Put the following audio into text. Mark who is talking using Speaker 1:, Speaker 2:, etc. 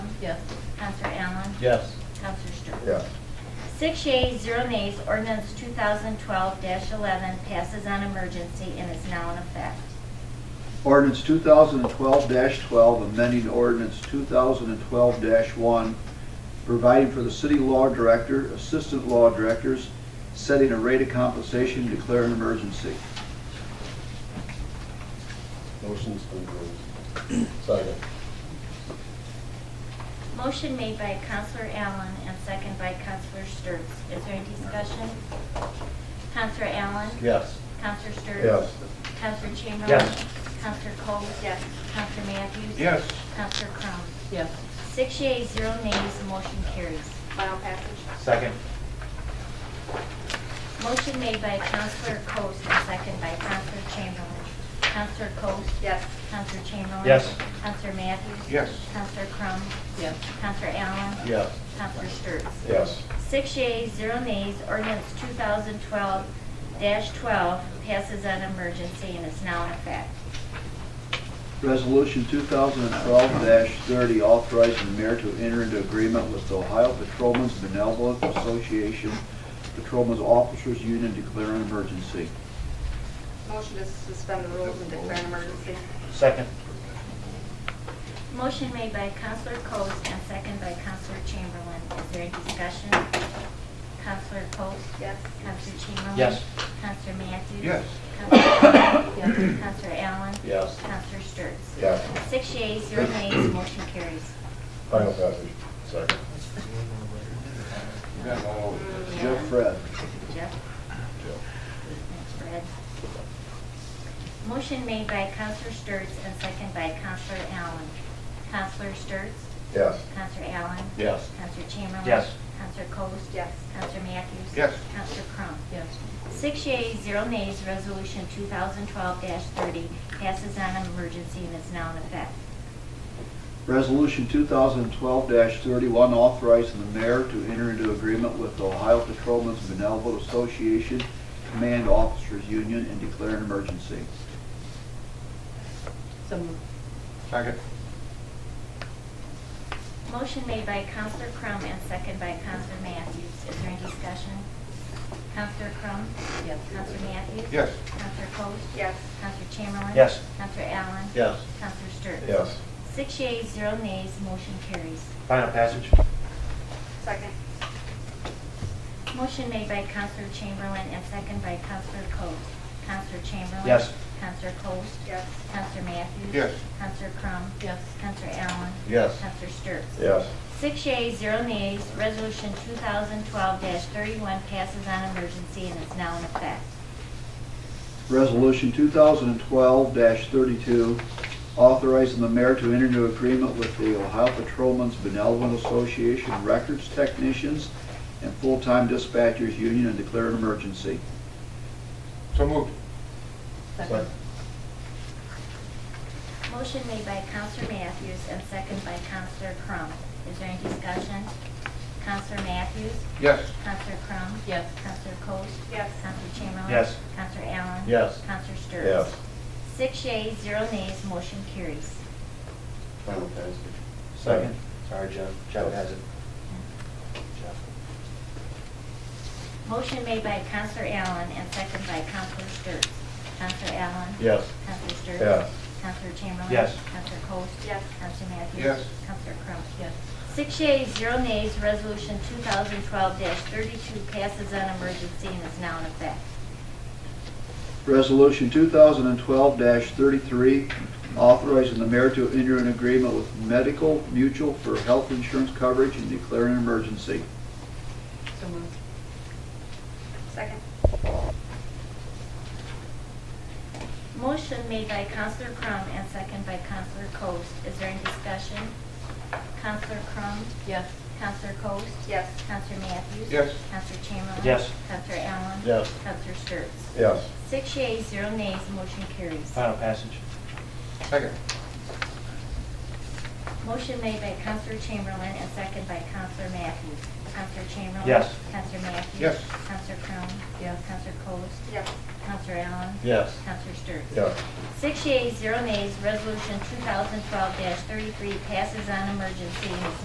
Speaker 1: Yes.
Speaker 2: Counselor Allen?
Speaker 3: Yes.
Speaker 2: Counselor Stewart?
Speaker 4: yes,
Speaker 2: Six yeas, zero nays, ordinance 2012-11 passes on emergency and is now in effect.
Speaker 5: Ordinance 2012-12, amending ordinance 2012-1, providing for the city law director, assistant law directors, setting a rate of compensation, declare an emergency.
Speaker 4: motion's been approved. Second,
Speaker 2: Motion made by Counselor Allen and second by Counselor Sturts. Is there any discussion? Counselor Allen?
Speaker 3: Yes.
Speaker 2: Counselor Sturts?
Speaker 4: yes,
Speaker 2: Counselor Chamberlain?
Speaker 3: Yes.
Speaker 2: Counselor Coats? Yes. Counselor Matthews?
Speaker 3: Yes.
Speaker 2: Counselor Crum?
Speaker 1: Yes.
Speaker 2: Six yeas, zero nays, motion carries.
Speaker 6: Final passage?
Speaker 3: Second.
Speaker 2: Motion made by Counselor Coats and second by Counselor Chamberlain. Counselor Coats?
Speaker 6: Yes.
Speaker 2: Counselor Chamberlain?
Speaker 3: Yes.
Speaker 2: Counselor Matthews?
Speaker 3: Yes.
Speaker 2: Counselor Crum?
Speaker 1: Yes.
Speaker 2: Counselor Allen?
Speaker 3: Yes.
Speaker 2: Counselor Sturts?
Speaker 4: yes,
Speaker 2: Six yeas, zero nays, ordinance 2012-12 passes on emergency and is now in effect.
Speaker 5: Resolution 2012-30, authorizing the mayor to enter into agreement with the Ohio Patrolmen's Benevolent Association, Patrolmen's Officers Union, declare an emergency.
Speaker 6: Motion to suspend the rules and declare an emergency?
Speaker 3: Second.
Speaker 2: Motion made by Counselor Coats and second by Counselor Chamberlain. Is there any discussion? Counselor Coats?
Speaker 6: Yes.
Speaker 2: Counselor Chamberlain?
Speaker 3: Yes.
Speaker 2: Counselor Matthews?
Speaker 3: Yes.
Speaker 2: Counselor Crum? Counselor Allen?
Speaker 3: Yes.
Speaker 2: Counselor Sturts?
Speaker 4: yes,
Speaker 2: Six yeas, zero nays, motion carries.
Speaker 4: final passage. Second,
Speaker 6: Mm,
Speaker 5: Jeff Fred.
Speaker 2: Jeff? Fred. Motion made by Counselor Sturts and second by Counselor Allen. Counselor Sturts?
Speaker 4: yes,
Speaker 2: Counselor Allen?
Speaker 3: Yes.
Speaker 2: Counselor Chamberlain?
Speaker 3: Yes.
Speaker 2: Counselor Coats?
Speaker 6: Yes.
Speaker 2: Counselor Matthews?
Speaker 3: Yes.
Speaker 2: Counselor Crum?
Speaker 1: Yes.
Speaker 2: Six yeas, zero nays, resolution 2012-30 passes on emergency and is now in effect.
Speaker 5: Resolution 2012-31, authorizing the mayor to enter into agreement with the Ohio Patrolmen's Benevolent Association Command Officers Union and declare an emergency.
Speaker 1: So moved.
Speaker 3: Second.
Speaker 2: Motion made by Counselor Crum and second by Counselor Matthews. Is there any discussion? Counselor Crum?
Speaker 1: Yes.
Speaker 2: Counselor Matthews?
Speaker 3: Yes.
Speaker 2: Counselor Coats?
Speaker 6: Yes.
Speaker 2: Counselor Chamberlain?
Speaker 3: Yes.
Speaker 2: Counselor Allen?
Speaker 3: Yes.
Speaker 2: Counselor Sturts?
Speaker 4: yes,
Speaker 2: Six yeas, zero nays, motion carries.
Speaker 3: Final passage?
Speaker 6: Second?
Speaker 2: Motion made by Counselor Chamberlain and second by Counselor Coats. Counselor Chamberlain?
Speaker 3: Yes.
Speaker 2: Counselor Coats?
Speaker 6: Yes.
Speaker 2: Counselor Matthews?
Speaker 3: Yes.
Speaker 2: Counselor Crum?
Speaker 1: Yes.
Speaker 2: Counselor Allen?
Speaker 3: Yes.
Speaker 2: Counselor Sturts?
Speaker 4: yes,
Speaker 2: Six yeas, zero nays, resolution 2012-31 passes on emergency and is now in effect.
Speaker 5: Resolution 2012-32, authorizing the mayor to enter into agreement with the Ohio Patrolmen's Benevolent Association Records Technicians and Full-Time Dispatchers Union and declare an emergency.
Speaker 3: So moved.
Speaker 1: Second.
Speaker 2: Motion made by Counselor Matthews and second by Counselor Crum. Is there any discussion? Counselor Matthews?
Speaker 3: Yes.
Speaker 2: Counselor Crum?
Speaker 1: Yes.
Speaker 2: Counselor Coats?
Speaker 6: Yes.
Speaker 2: Counselor Chamberlain?
Speaker 3: Yes.
Speaker 2: Counselor Allen?
Speaker 3: Yes.
Speaker 2: Counselor Sturts?
Speaker 4: yes,
Speaker 2: Six yeas, zero nays, motion carries.
Speaker 4: final passage.
Speaker 3: Second. Sorry, Jeff. Jeff has it.
Speaker 2: Motion made by Counselor Allen and second by Counselor Sturts. Counselor Allen?
Speaker 3: Yes.
Speaker 2: Counselor Sturts?
Speaker 4: Yes.
Speaker 2: Counselor Chamberlain?
Speaker 3: Yes.
Speaker 2: Counselor Coats?
Speaker 6: Yes.
Speaker 2: Counselor Matthews?
Speaker 3: Yes.
Speaker 2: Counselor Crum?
Speaker 1: Yes.
Speaker 2: Six yeas, zero nays, resolution 2012-32 passes on emergency and is now in effect.
Speaker 5: Resolution 2012-33, authorizing the mayor to enter an agreement with Medical Mutual for health insurance coverage and declare an emergency.
Speaker 1: So moved.
Speaker 6: Second?
Speaker 2: Motion made by Counselor Crum and second by Counselor Coast. Is there any discussion? Counselor Crum?
Speaker 1: Yes.
Speaker 2: Counselor Coast?
Speaker 6: Yes.
Speaker 2: Counselor Matthews?
Speaker 3: Yes.
Speaker 2: Counselor Chamberlain?
Speaker 3: Yes.
Speaker 2: Counselor Allen?
Speaker 3: Yes.
Speaker 2: Counselor Sturts?
Speaker 4: Yes,
Speaker 2: Six yeas, zero nays, motion carries.
Speaker 3: Final passage? Second.
Speaker 2: Motion made by Counselor Chamberlain and second by Counselor Matthews. Counselor Chamberlain?
Speaker 3: Yes.
Speaker 2: Counselor Matthews?
Speaker 3: Yes.
Speaker 2: Counselor Crum?
Speaker 1: Yes.
Speaker 2: Counselor Coast?
Speaker 6: Yes.
Speaker 2: Counselor Allen?
Speaker 3: Yes.
Speaker 2: Counselor Sturts?
Speaker 4: yes,
Speaker 2: Six yeas, zero nays, resolution 2012-33 passes on emergency and is